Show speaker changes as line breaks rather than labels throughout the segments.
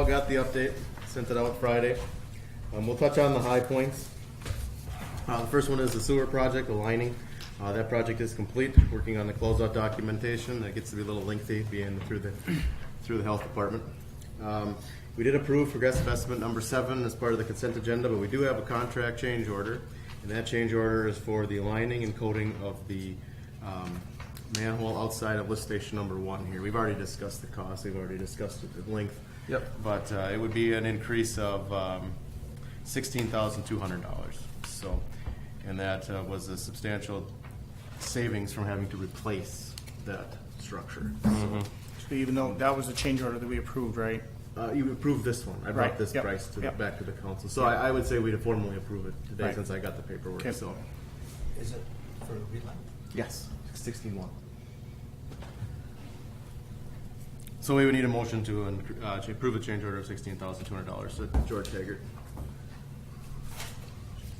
All got the update, sent it out Friday. Um, we'll touch on the high points. Uh, the first one is the sewer project, the lining. Uh, that project is complete, working on the closeout documentation. That gets to be a little lengthy being through the, through the health department. Um, we did approve progressive estimate number seven as part of the consent agenda, but we do have a contract change order. And that change order is for the lining and coating of the, um, manhole outside of lift station number one here. We've already discussed the cost, we've already discussed it at length.
Yep.
But uh, it would be an increase of um, $16,200. So, and that uh, was a substantial savings from having to replace that structure.
So Even though that was a change order that we approved, right?
Uh, You approved this one, I brought
Right,
this
yep,
price to, the-
yep.
back to the council. So I I would say we'd formally approve it today
Right.
since I got the paperwork,
Okay.
so.
Is it for relay?
Yes, sixteen one. So we would need a motion to uh, to approve a change order of sixteen thousand two hundred dollars to George Haggard.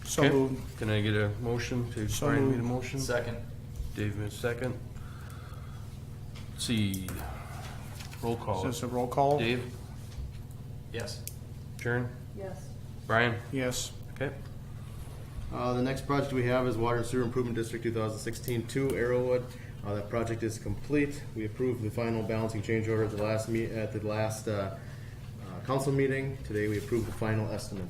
So moved.
Can I get a motion? Dave
So
Ryan made a
moved.
motion. Second. Dave made a second. Let's See, roll
Is
call.
this a roll call?
Dave?
Yes.
Jern?
Yes,
Brian?
Yes.
Okay.
Uh, the next project we have is Water and Sewer Improvement District 2016-2 Arrowwood. Uh, that project is complete. We approved the final balancing change order at the last meet, at the last, uh, uh, council meeting. Today we approved the final estimate.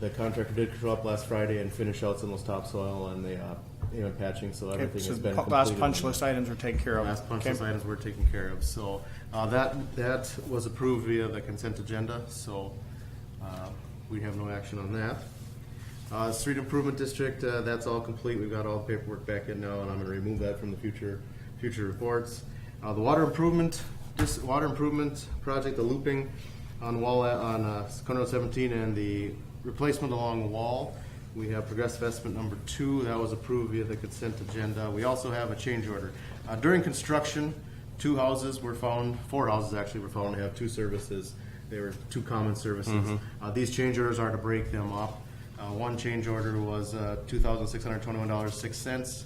The contractor did show up last Friday and finish out some of those topsoil and the, uh, you know, patching, so
Okay,
everything
so
has been
the
completed.
last punch
on that.
list items are taken care of.
Last punch
Okay.
list items were taken care of, so, uh, that, that was approved via the consent agenda, so, uh, we have no action on that. Uh, street improvement district, uh, that's all complete, we've got all the paperwork back in now, and I'm gonna remove that from the future, future reports. Uh, the water improvement, this water improvement project, the looping on Wall, on, uh, Conroe seventeen and the replacement along Wall, we have progressive estimate number two, that was approved via the consent agenda. We also have a change order. Uh, During construction, two houses were found, four houses actually were found to have two services. They were two common services. Uh, These change orders are to break them up. Uh, One change order was uh, two thousand six hundred twenty-one dollars six cents,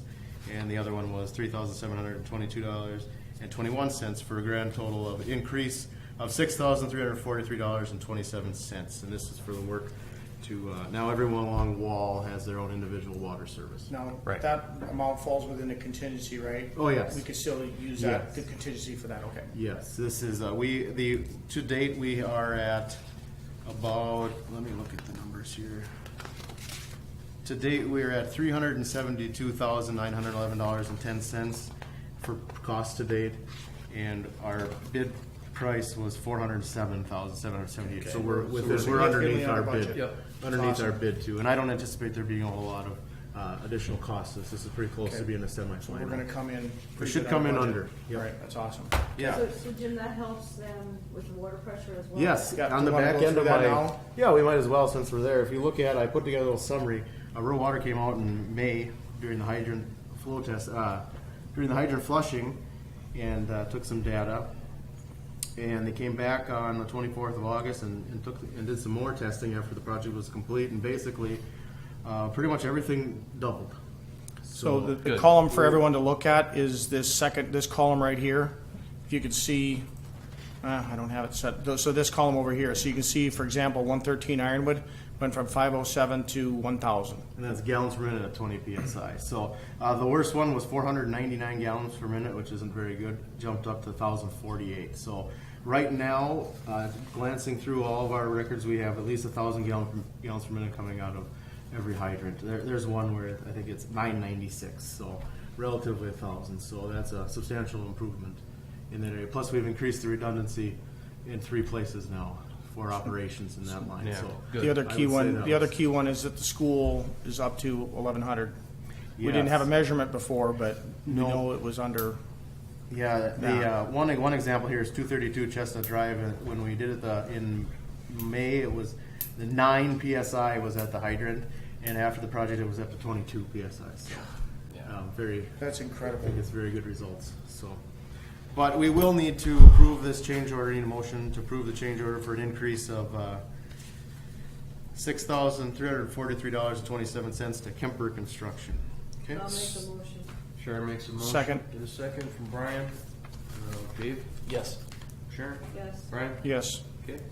and the other one was three thousand seven hundred twenty-two dollars and twenty-one cents for a grand total of increase of six thousand three hundred forty-three dollars and twenty-seven cents. And this is for the work to, uh, now everyone along Wall has their own individual water service.
Now,
Right.
that amount falls within the contingency, right?
Oh, yes.
We could still use that,
Yes.
the contingency for that, okay.
Yes, this is, uh, we, the, to date, we are at about, let me look at the numbers here. To date, we are at three hundred and seventy-two thousand nine hundred eleven dollars and ten cents for cost to date. And our bid price was four hundred and seven thousand seven hundred seventy-eight, so we're, within- we're underneath our
significantly under
bid.
budget. Yep.
Underneath our bid too, and I don't anticipate there being a whole lot of, uh, additional costs, this is pretty close to
Okay.
being a
So we're
semi-final.
gonna come in.
We
pretty
should
good
come
on
in
budget.
under, yep.
Right, that's awesome.
Yeah.
so, so Jim, that helps them with the water pressure as well?
Yes,
Got-
on
do
the
you wanna
back
go
end
through
of
that
my,
now?
yeah, we might as well, since we're there. If you look at, I put together a little summary. Uh, Rural Water came out in May during the hydrant flow test, uh, during the hydrant flushing, and, uh, took some data. And they came back on the twenty-fourth of August and, and took, and did some more testing after the project was complete, and basically, uh, pretty much everything doubled.
So the, the
Good.
column for everyone to look at is this second, this column right here. If you could see, uh, I don't have it set, Tho- so this column over here, so you can see, for example, one thirteen Ironwood went from five oh seven to one thousand.
and that's gallons per minute at 20 psi. So uh, the worst one was 499 gallons per minute, which isn't very good. Jumped up to 1,048. So right now, uh, glancing through all of our records, we have at least 1,000 gallon per, gallons per minute coming out of every hydrant. There, there's one where I think it's 996. So relatively 1,000. So that's a substantial improvement in that area. Plus, we've increased the redundancy in three places now for operations in that line.
Yeah,
so
good.
The other
I
key
would say
one,
that
the other
was-
key one is that the school is up to eleven hundred. We didn't have a
Yes.
measurement before, but we
No.
know it was under,
Yeah, the,
Yeah.
uh, one, one example here is two thirty-two Chestnut Drive, and when we did it the, in May, it was, the nine PSI was at the hydrant, and after the project, it was up to twenty-two PSI, so. um, Very,
that's
I
incredible.
think it's very good results, so. But we will need to approve this change order, need a motion to approve the change order for an increase of, uh, six thousand three hundred forty-three dollars and twenty-seven cents to Kemper Construction. Okay?
I'll make the motion.
Sharon makes a motion.
Second.
Get a second from Brian. Uh, Dave?
Yes.
Sharon?
Yes.
Brian?
Yes,
Okay.